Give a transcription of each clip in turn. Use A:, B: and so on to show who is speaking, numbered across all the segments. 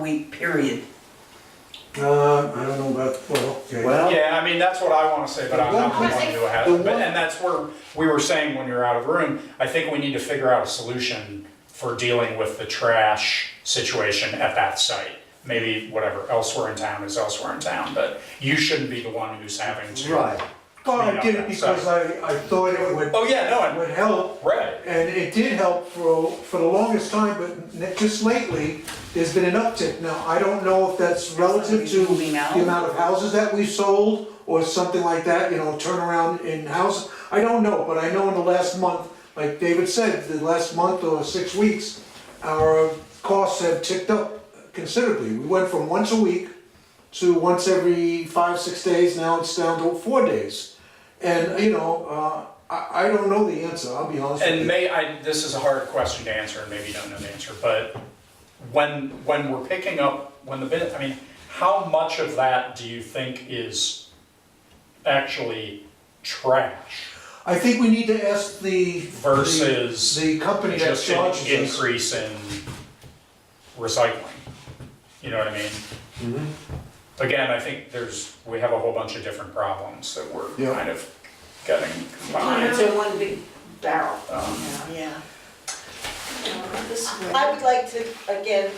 A: week period.
B: Uh, I don't know about, well, okay.
C: Well,
D: Yeah, I mean, that's what I wanna say, but I'm not the one who has,
C: The
D: it.
C: one-
D: But- and that's where we were saying when you're out of room, I think we need to figure out a solution for dealing with the trash situation at that site. Maybe whatever elsewhere in town is elsewhere in town, but you shouldn't be the one who's having to.
C: right.
B: Well, I did it because I, I thought it would,
D: Oh, yeah, no, and,
B: would help
D: right,
B: And it did help for, for the longest time, but n- just lately, there's been an uptick. Now, I don't know if that's relative to
A: Moving out?
B: the amount of houses that we've sold or something like that, you know, turnaround in houses. I don't know, but I know in the last month, like David said, the last month or six weeks, our costs have ticked up considerably. We went from once a week to once every five, six days, now it's down to four days. And, you know, uh, I, I don't know the answer, I'll be honest with you.
D: and may, I, this is a hard question to answer, and maybe you don't know the answer, but when, when we're picking up, when the bin, I mean, how much of that do you think is actually trash
B: I think we need to ask the.
D: Versus
B: The the company that
D: just an
B: charges us.
D: increase in recycling? You know what I mean? Again, I think there's, we have a whole bunch of different problems that we're
B: Yeah.
D: kind of getting
E: It's
D: combined.
E: in one big barrel.
D: Um,
A: Yeah.
E: I would like to, again,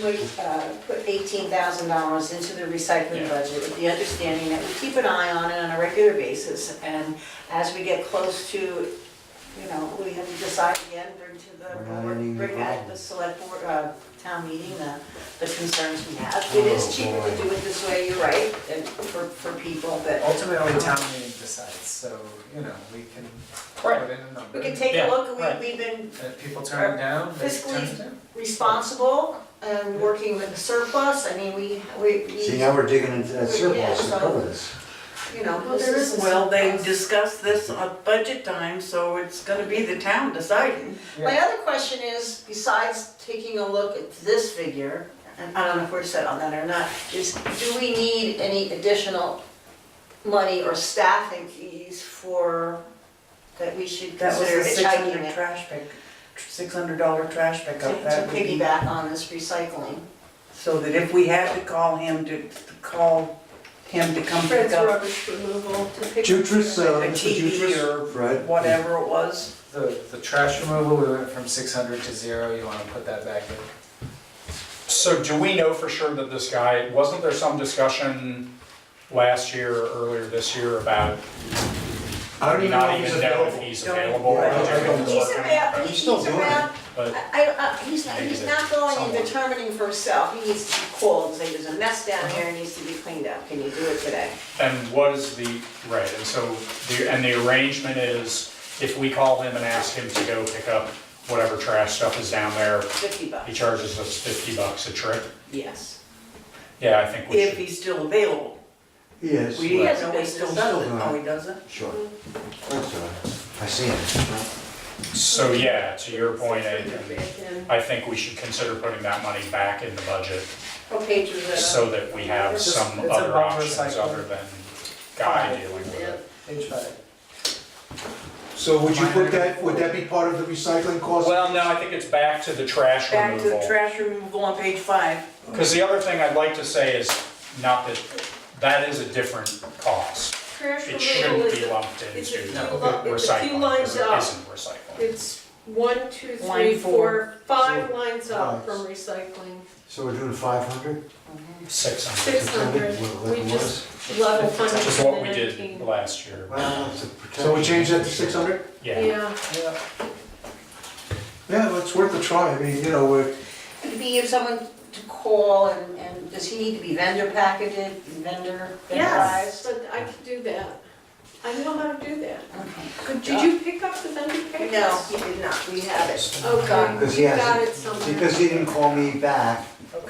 E: put, uh, put eighteen thousand dollars into the recycling
D: Yeah.
E: budget with the understanding that we keep an eye on it on a regular basis. And as we get close to, you know, we have to decide again, bring to the
C: We're not ending
E: board,
C: the
E: bring back
C: problem.
E: the select board, uh, town meeting, the, the concerns we have. It is
C: Oh,
E: cheaper to
C: boy.
E: do it this way, you're right, and for, for people, but
F: Ultimately, town meeting decides, so, you know, we can
D: Right.
F: put in a number.
E: we can take a
D: Yeah,
E: look,
D: right.
E: we, we've been
F: If people turn it down, they turn
E: Fiscally-
F: it down.
E: responsible and working with the surplus, I mean, we, we, we-
C: See, now we're digging into that
E: Yeah,
C: surplus and
E: so-
C: covers.
E: you know,
A: Well,
E: this
A: there
E: is.
A: is, well, they discussed this at budget time, so it's gonna be the town deciding.
E: My other question is, besides taking a look at this figure, and I don't know if we're set on that or not, is do we need any additional money or staffing fees for, that we should
G: That was
E: consider
G: the six
E: hitchhiking
G: hundred
E: it?
G: trash pick, six hundred dollar trash
E: To-
G: pickup,
E: To
G: that would be,
E: piggyback on this recycling.
G: so that if we had to call him to, to call him to come pick up
E: removal to pick.
B: Jutris,
G: a
B: uh, Mr.
G: TV
B: Jutris.
G: or
C: Right.
G: whatever it was.
F: The, the trash removal, we went from six hundred to zero, you wanna put that back in?
D: So do we know for sure that this guy, wasn't there some discussion last year or earlier this year about
B: I don't even know
D: not
B: if he's
D: even know if
B: available.
D: he's
G: Don't-
D: available? or
B: Right.
D: doing
E: He's
D: work on it?
E: around,
C: He's
E: he's
C: still doing it.
E: around,
D: But
E: I, I, uh, he's, not-
D: Maybe
E: he's
D: there's
E: not going and
D: someone.
E: determining for himself, he needs to be called, and say, there's a mess down here, it needs to be cleaned up, can you do it today?
D: And what is the, right, and so, the and the arrangement is, if we call him and ask him to go pick up whatever trash stuff is down there,
E: Fifty
D: he
E: bucks,
D: charges us fifty bucks a trip?
E: yes.
D: Yeah, I think we
G: If
D: should.
G: he's still available.
C: Yes,
G: We
C: right.
G: didn't
E: hasn't
G: know he
E: been
G: still
E: decided.
G: does it, no, he doesn't.
C: sure. That's all right. I see it.
D: So, yeah, to your point, I, I think we should consider putting that money back in the budget
E: What page was that on?
D: so that we have
F: It's
D: some
F: just- it's
D: other
F: about
D: options
F: recycling.
D: other than guy
F: Five.
D: dealing with
E: Yeah.
D: it.
F: Page five.
B: So would you put that, would that be part of the recycling cost?
D: Well, no, I think it's back to the trash
G: Back to the
D: removal.
G: trash removal on page five.
D: Because the other thing I'd like to say is, not that, that is a different cost.
H: Trash
D: It
H: removal
D: shouldn't be
H: is, a-
D: lumped into
H: it's a few
D: recycling,
H: li- it's a few lines
D: because it
H: up.
D: isn't recycling.
H: It's one, two,
G: Line
H: three,
G: four.
H: four, five lines up
B: Right.
H: from recycling,
C: So we're doing five hundred?
D: Six hundred,
H: six hundred, we just level funded
D: which is
H: in
D: what we
H: the
D: did
H: nineteen.
D: last year.
C: Well, it's a protection.
B: So we change that to six hundred?
D: Yeah,
H: Yeah,
F: Yeah,
B: Yeah, well, it's worth a try, I mean, you know, we're,
E: It'd be if someone to call and, and does he need to be vendor packaged, vendor,
H: yes,
E: vendor
H: but I could do that, I know how to do that.
E: Good
H: Did you pick up the vendor papers?
E: No, he did not, we have it.
H: Okay,
C: Because he
H: we got
C: hasn't-
H: it somewhere.
C: Because he didn't call me back to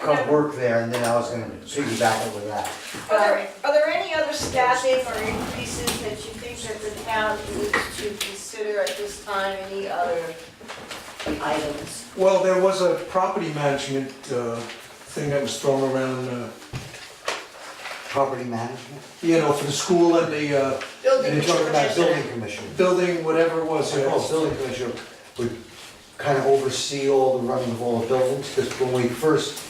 C: come
H: Okay.
C: work there, and then I was gonna piggyback it with that.
E: Are there, are there any other staffing or increases that you think that the town needs to consider at this time, any other items?
B: well, there was a property management, uh, thing that was thrown around, uh,
C: Property management,
B: you know, for the school and the, uh,
E: Building
B: and you're talking about
E: commissioner.
C: building commission.
B: building, whatever it was,
C: So
B: yeah.
C: all building commissioner would kind of oversee all the running of all the buildings, because when we first